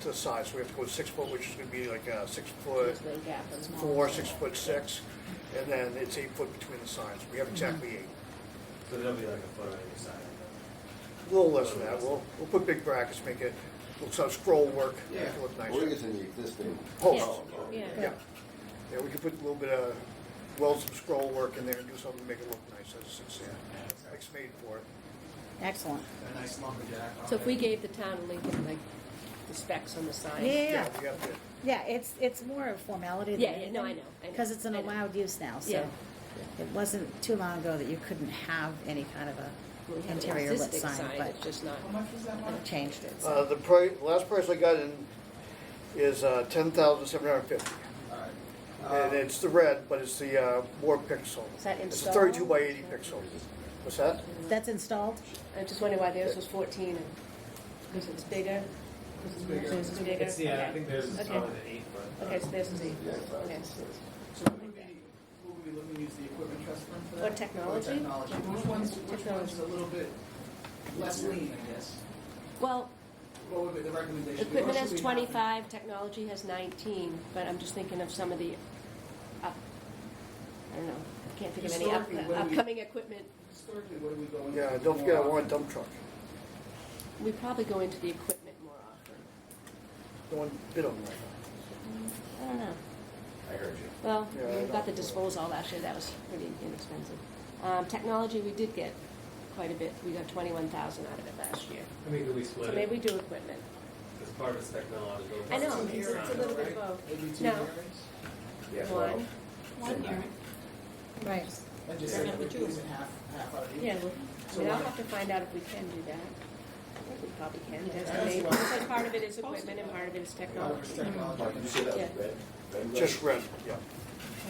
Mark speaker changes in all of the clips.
Speaker 1: to the side, so we have to go six foot, which is gonna be like, uh, six foot
Speaker 2: This way gap is long.
Speaker 1: four, six foot six, and then it's eight foot between the signs. We have exactly eight.
Speaker 3: So there'll be like a foot on either side. of
Speaker 1: A little less than that. We'll, we'll put big brackets, make it, looks like scroll work, make it look
Speaker 4: I
Speaker 1: nice.
Speaker 4: believe it's in the existing.
Speaker 1: Post.
Speaker 2: Yeah.
Speaker 1: Yeah. Yeah, we could put a little bit of, weld some scroll work in there and do something to make it look nice. That's, that's, yeah, it's made for it.
Speaker 5: Excellent.
Speaker 3: that. A nice lumberjack. on
Speaker 2: So if
Speaker 3: it.
Speaker 2: we gave the town of Lincoln like the specs on the sign.
Speaker 5: Yeah.
Speaker 1: We have to,
Speaker 5: Yeah, it's, it's more a formality than
Speaker 2: Yeah,
Speaker 5: anything.
Speaker 2: yeah, no, I know, I know,
Speaker 5: Because it's an
Speaker 2: I know.
Speaker 5: allowed use now, so.
Speaker 2: Yeah.
Speaker 5: It wasn't too long ago that you couldn't have any kind of
Speaker 2: We
Speaker 5: a
Speaker 2: have an
Speaker 5: interior lit
Speaker 2: existing
Speaker 5: sign, but
Speaker 2: It's just not.
Speaker 3: How much is that one?
Speaker 5: they changed it, so.
Speaker 1: Uh, the price, last price I got in is, uh, ten thousand seven hundred and fifty.
Speaker 3: Alright.
Speaker 1: And
Speaker 3: Um,
Speaker 1: it's the red, but it's the, uh, more pixel.
Speaker 2: Is that
Speaker 1: It's a
Speaker 2: installed?
Speaker 1: thirty-two by eighty pixel. What's that?
Speaker 5: That's installed?
Speaker 2: I'm just wondering why theirs was fourteen and, because it's bigger. 'Cause theirs is bigger?
Speaker 3: It's, yeah, I
Speaker 2: Okay.
Speaker 3: think theirs is
Speaker 2: Okay.
Speaker 3: probably the eight foot.
Speaker 2: Okay, so theirs is eight.
Speaker 4: Yeah, it's
Speaker 2: Okay.
Speaker 6: So who would we, who would we look to use the equipment trust fund for
Speaker 2: Or
Speaker 6: that?
Speaker 2: technology?
Speaker 6: Or technology, which one's, which one's a little bit less lean, I guess?
Speaker 2: Well,
Speaker 6: What would be the recommendation? Or
Speaker 2: equipment
Speaker 6: should
Speaker 2: has
Speaker 6: we have-
Speaker 2: twenty-five, technology has nineteen, but I'm just thinking of some of the up, I don't know, I can't think of any up- uh,
Speaker 6: Historically, when we-
Speaker 2: upcoming equipment.
Speaker 6: Historically, what do we go into?
Speaker 1: Yeah, don't forget I want a dump truck.
Speaker 2: We probably go into the equipment more often.
Speaker 1: No one bid on that.
Speaker 2: I don't know.
Speaker 3: I heard you.
Speaker 2: Well,
Speaker 1: Yeah,
Speaker 2: we
Speaker 1: I
Speaker 2: got the
Speaker 1: don't-
Speaker 2: disposal last year, that was pretty inexpensive. Um, technology, we did get quite a bit, we got twenty-one thousand out of it last year.
Speaker 3: I mean, could we
Speaker 2: So
Speaker 3: split
Speaker 2: maybe
Speaker 3: it?
Speaker 2: we do equipment.
Speaker 3: Because part of it's technological.
Speaker 2: I know,
Speaker 3: part
Speaker 6: Some
Speaker 3: of
Speaker 2: it's- it's a
Speaker 3: design.
Speaker 2: little bit
Speaker 6: right?
Speaker 2: of both.
Speaker 6: Maybe two
Speaker 2: No.
Speaker 6: areas?
Speaker 3: Yeah, well,
Speaker 2: One,
Speaker 4: One hearing.
Speaker 5: Right.
Speaker 6: I just
Speaker 2: Yeah.
Speaker 6: said we're using half, half out of each.
Speaker 2: yeah, well, I
Speaker 6: So
Speaker 2: mean, I'll
Speaker 6: why-
Speaker 2: have to find out if we can do that. I think we probably can,
Speaker 6: Yeah,
Speaker 2: that's
Speaker 6: that's
Speaker 2: maybe,
Speaker 6: why-
Speaker 2: because part of it is equipment and part of it is
Speaker 6: Why would
Speaker 2: technology.
Speaker 6: it's
Speaker 4: Mark,
Speaker 6: technology?
Speaker 4: you say that was
Speaker 2: Yeah.
Speaker 4: red? red?
Speaker 1: Just red, yeah.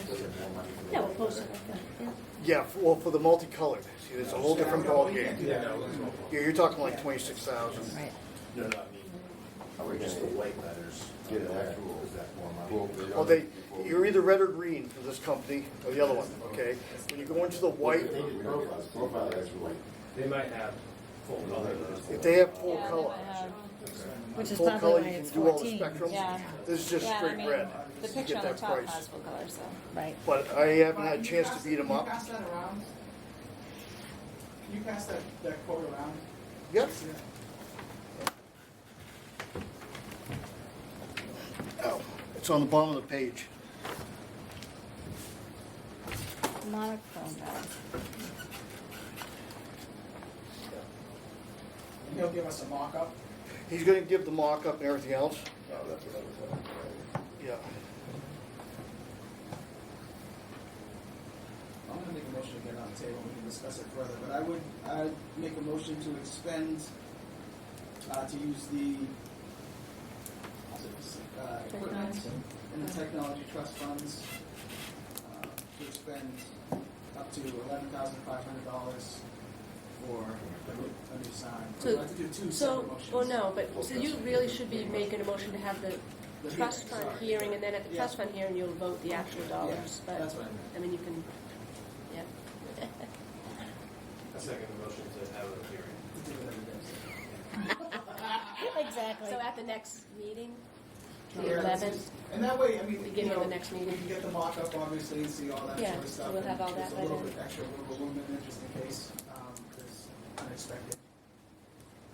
Speaker 4: Doesn't have money for the
Speaker 2: Yeah, we'll
Speaker 4: red.
Speaker 2: post it like that, yeah.
Speaker 1: Yeah, f- well, for the multicolored, see, it's a whole different ballgame.
Speaker 3: Yeah, no, it's mobile.
Speaker 1: You're, you're talking like twenty-six thousand.
Speaker 5: Right.
Speaker 1: Uh,
Speaker 3: No, no, I mean,
Speaker 4: Are we
Speaker 3: just
Speaker 4: just
Speaker 3: the white letters.
Speaker 4: Get
Speaker 3: on
Speaker 4: an
Speaker 3: there.
Speaker 4: actual-
Speaker 3: Is that more money?
Speaker 4: Well, the
Speaker 1: Well,
Speaker 4: other
Speaker 1: they,
Speaker 4: people-
Speaker 1: you're either red or green for this company or the other one, okay? When you go into the
Speaker 4: We
Speaker 1: white,
Speaker 4: don't realize Profile guys were like,
Speaker 3: They might have full color letters.
Speaker 1: if they have full color,
Speaker 2: uh,
Speaker 5: Which is
Speaker 1: full color,
Speaker 5: probably why
Speaker 1: you
Speaker 5: it's
Speaker 1: can do all the
Speaker 5: fourteen.
Speaker 1: spectrum.
Speaker 7: Yeah.
Speaker 1: This is just
Speaker 7: Yeah, I
Speaker 1: straight
Speaker 7: mean,
Speaker 1: red.
Speaker 7: The
Speaker 1: You
Speaker 7: picture
Speaker 1: get
Speaker 7: on the
Speaker 1: that
Speaker 7: top
Speaker 1: price.
Speaker 7: has full color, so.
Speaker 5: Right.
Speaker 1: But I haven't had a
Speaker 6: Brian, can you
Speaker 1: chance
Speaker 6: pass-
Speaker 1: to beat them
Speaker 6: can you
Speaker 1: up.
Speaker 6: pass that around? Can you pass that, that quote around?
Speaker 1: Yep.
Speaker 6: Yeah.
Speaker 1: Oh, It's on the bottom of the page.
Speaker 5: Monochrome, uh,
Speaker 6: And he'll give us a mock-up.
Speaker 1: He's gonna give the mock-up and everything else.
Speaker 4: oh, that's what I was talking
Speaker 1: Yeah.
Speaker 6: I'm gonna make a motion to get on the table, we can discuss it further, but I would, I'd make a motion to expend, uh, to use the, uh, equipment and the technology trust funds, uh, to expend up to eleven thousand five hundred dollars for a new, a new sign. So we have to do two
Speaker 2: So,
Speaker 6: separate motions.
Speaker 2: well, no, but, so you really should be making a motion to have the
Speaker 6: The
Speaker 2: trust
Speaker 6: hearing,
Speaker 2: fund
Speaker 6: sorry.
Speaker 2: hearing, and then at the
Speaker 6: Yeah.
Speaker 2: trust fund hearing, you'll vote the actual
Speaker 6: Yeah,
Speaker 2: dollars, but,
Speaker 6: that's what I meant.
Speaker 2: I mean, you can, yeah.
Speaker 3: A second motion to have a hearing.
Speaker 6: Do it every day.
Speaker 5: Exactly.
Speaker 2: So at the next meeting,
Speaker 6: Yeah,
Speaker 2: the
Speaker 6: that's
Speaker 2: eleventh,
Speaker 6: just- And that way, I mean, you
Speaker 2: beginning of
Speaker 6: know,
Speaker 2: the next
Speaker 6: We
Speaker 2: meeting.
Speaker 6: can get the mock-up, obviously, and see all that
Speaker 2: Yeah,
Speaker 6: sort of
Speaker 2: so
Speaker 6: stuff.
Speaker 2: we'll
Speaker 6: and
Speaker 2: have all that
Speaker 6: Just
Speaker 2: by
Speaker 6: a little
Speaker 2: then.
Speaker 6: bit extra wiggle room in there, just in case, um, there's unexpected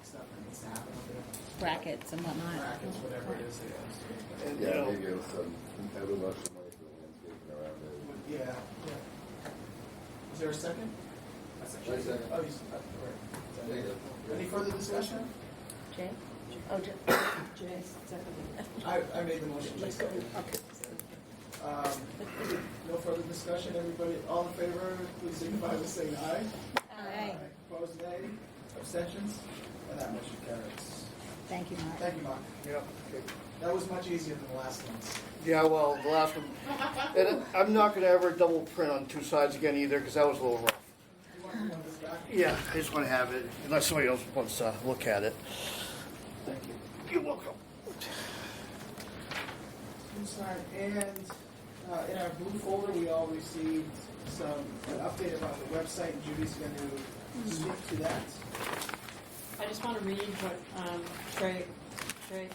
Speaker 6: stuff that needs to happen up there.
Speaker 5: Brackets and whatnot.
Speaker 6: Brackets, whatever it is. that goes.
Speaker 1: And,
Speaker 4: about.
Speaker 1: you
Speaker 4: Yeah,
Speaker 1: know,
Speaker 4: maybe it was some, that was lots of money for the landscaping around it.
Speaker 6: Yeah, yeah. Is there a second?
Speaker 4: Wait a second.
Speaker 6: Oh, you, s- uh, all right.
Speaker 4: Yeah.
Speaker 6: Any further discussion?
Speaker 2: Jay? Oh, Jay, Jay,
Speaker 6: I, I made the motion, Jason. Um, no further discussion, everybody, all in favor, please signify by saying aye.
Speaker 5: Aye.
Speaker 6: Opposed, nay? Abstentions? And that motion carries.
Speaker 5: Thank you, Mark.
Speaker 6: Thank you, Mark.
Speaker 1: Yeah, okay.
Speaker 6: That was much easier than the last one.
Speaker 1: Yeah, well, the last one, and I'm not gonna ever double print on two sides again either, because that was a little rough.
Speaker 6: You want to run this back?
Speaker 1: Yeah, I just wanna have it, unless somebody else wants to look at it.
Speaker 6: Thank you.
Speaker 1: You're welcome.
Speaker 6: I'm sorry, and uh, in our blue folder, we all received some, an update about the website, and Judy's going to speak to that.
Speaker 7: I just want to read what um, Trey, Trey